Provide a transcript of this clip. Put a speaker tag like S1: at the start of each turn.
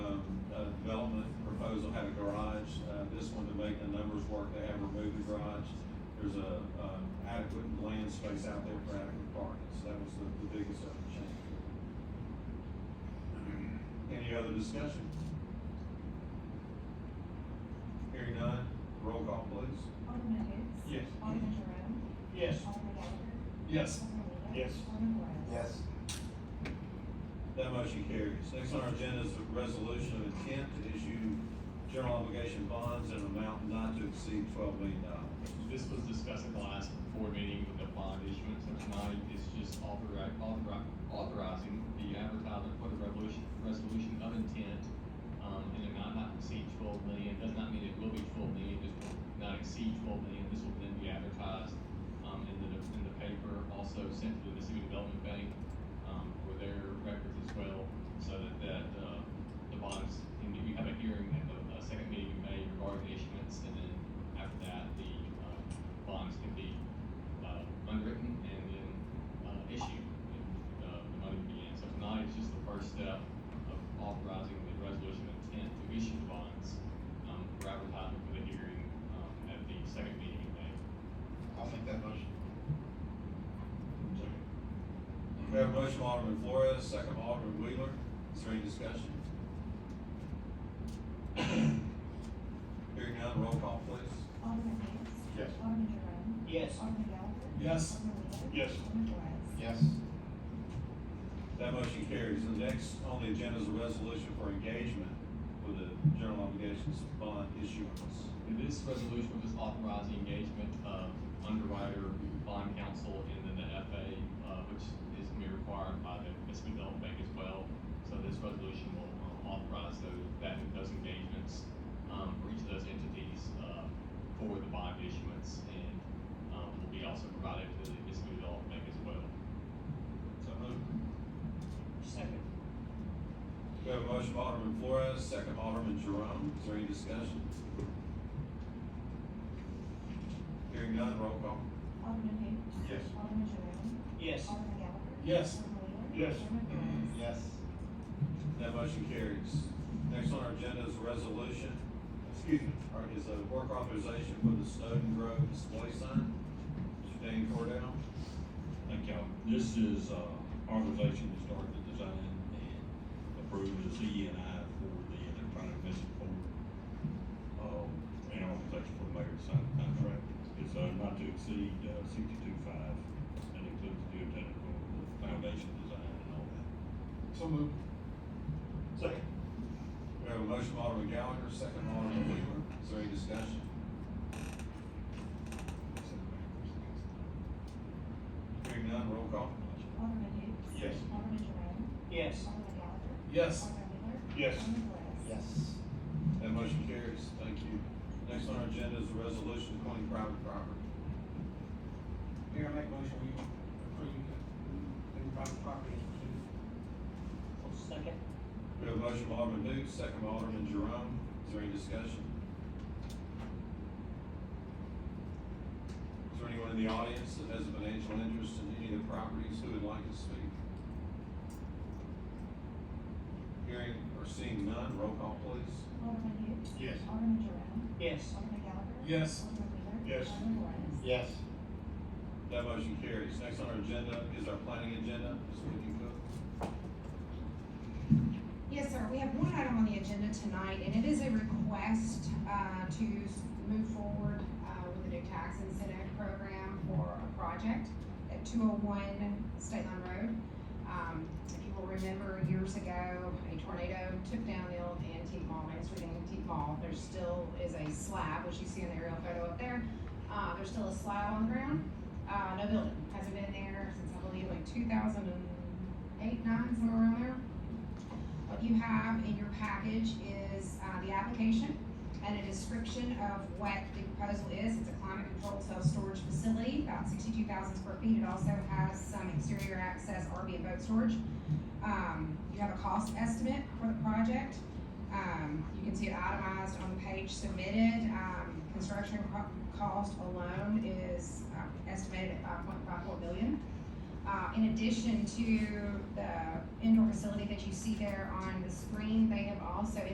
S1: um, uh, developers work, they have removed garage. There's a, uh, adequate land space out there for adequate parking, so that was the, the biggest other change. Any other discussion? Hearing none, roll call please.
S2: Alderman Hoots.
S1: Yes.
S2: Alderman Jerome.
S1: Yes.
S2: Alderman Gallagher.
S1: Yes.
S2: Alderman Wheeler.
S1: Yes.
S2: Alderman Flores.
S3: Yes.
S1: That motion carries. Next on our agenda is a resolution of intent to issue general obligation bonds in an amount not to exceed twelve million dollars.
S4: This was discussed at the last board meeting with the bond issuance, and tonight is just authori- authori- authorizing the advertisement for the revolution, resolution of intent, um, in an amount not to exceed twelve million, does not mean it will be twelve million, just will not exceed twelve million, this will then be advertised, um, in the, in the paper, also sent to the Mississippi Development Bank, um, for their records as well, so that, that, uh, the bonds, and we have a hearing at the, uh, second meeting in May regarding the issuance, and then after that, the, uh, bonds can be, uh, unwritten and then, uh, issued, and, uh, the money begins. So tonight is just the first step of authorizing the resolution of intent to issue the bonds, um, for advertising for the hearing, um, at the second meeting in May.
S3: I'll make that motion.
S1: We have a motion from Alderman Flores, second from Alderman Wheeler. Is there any discussion? Hearing none, roll call please.
S2: Alderman Hoots.
S1: Yes.
S2: Alderman Jerome.
S1: Yes.
S2: Alderman Gallagher.
S1: Yes.
S2: Alderman Wheeler.
S1: Yes.
S2: Alderman Flores.
S3: Yes.
S1: That motion carries. The next on the agenda is a resolution for engagement with the general obligations bond issuance.
S4: And This resolution will just authorize the engagement of underwriter, bond counsel, and then the FA, uh, which is gonna be required by the Mississippi Development Bank as well. So this resolution will um, authorize those, that, those engagements, um, for each of those entities, uh, for the bond issuance, and, um, will be also provided to the Mississippi Development Bank as well.
S1: So moved.
S5: Second.
S1: We have a motion from Alderman Flores, second from Alderman Jerome. Is there any discussion? Hearing none, roll call.
S2: Alderman Hoots.
S1: Yes.
S2: Alderman Jerome.
S5: Yes.
S2: Alderman Gallagher.
S1: Yes.
S2: Alderman Wheeler.
S5: Yes.
S2: Alderman Flores.
S3: Yes.
S1: That motion carries. Next on our agenda is a resolution, excuse me, or is a work authorization for the Snowden Grove display sign. Mr. Dan Cordell?
S6: Thank y'all. This is, uh, authorization to start the design and approve the Z and I for the electronic message board. Um, and authorization for the mayor to sign the contract. It's, uh, not to exceed, uh, sixty-two five. That includes the technical, the foundation design and all that.
S1: So moved. Second. We have a motion from Alderman Gallagher, second from Alderman Wheeler. Is there any discussion? Hearing none, roll call.
S2: Alderman Hoots.
S1: Yes.
S2: Alderman Jerome.
S5: Yes.
S2: Alderman Gallagher.
S1: Yes.
S2: Alderman Wheeler.
S1: Yes.
S2: Alderman Flores.
S3: Yes.
S1: That motion carries. Thank you. Next on our agenda is a resolution appointing private property.
S5: Mayor, I make motion we approve the private property is included. Second.
S1: We have a motion from Alderman Hoots, second from Alderman Jerome. Is there any discussion? Is there anyone in the audience that has a financial interest in any of the properties who would like to speak? Hearing or seeing none, roll call please.
S2: Alderman Hoots.
S1: Yes.
S2: Alderman Jerome.
S5: Yes.
S2: Alderman Gallagher.
S1: Yes.
S2: Alderman Wheeler.
S1: Yes.
S2: Alderman Flores.
S3: Yes.
S1: That motion carries. Next on our agenda is our planning agenda. Ms. Whitney Cook.
S7: Yes, sir, we have one item on the agenda tonight, and it is a request, uh, to s- move forward, uh, with the new tax incentive program for a project at two oh one State Line Road. Um, if you will remember, years ago, a tornado took down the old antique mall, Main Street Antique Mall. There still is a slab, which you see in the aerial photo up there, uh, there's still a slab on the ground, uh, no building, hasn't been there since, I believe, like two thousand and eight, nine, somewhere around there. What you have in your package is, uh, the application and a description of what the proposal is. It's a climate controlled self-storage facility, about sixty-two thousand square feet. It also has some exterior access, RV and boat storage. Um, you have a cost estimate for the project. Um, you can see it itemized on the page submitted. Um, construction co- cost alone is uh, estimated at five point five four billion. Uh, in addition to the indoor facility that you see there on the screen, they have also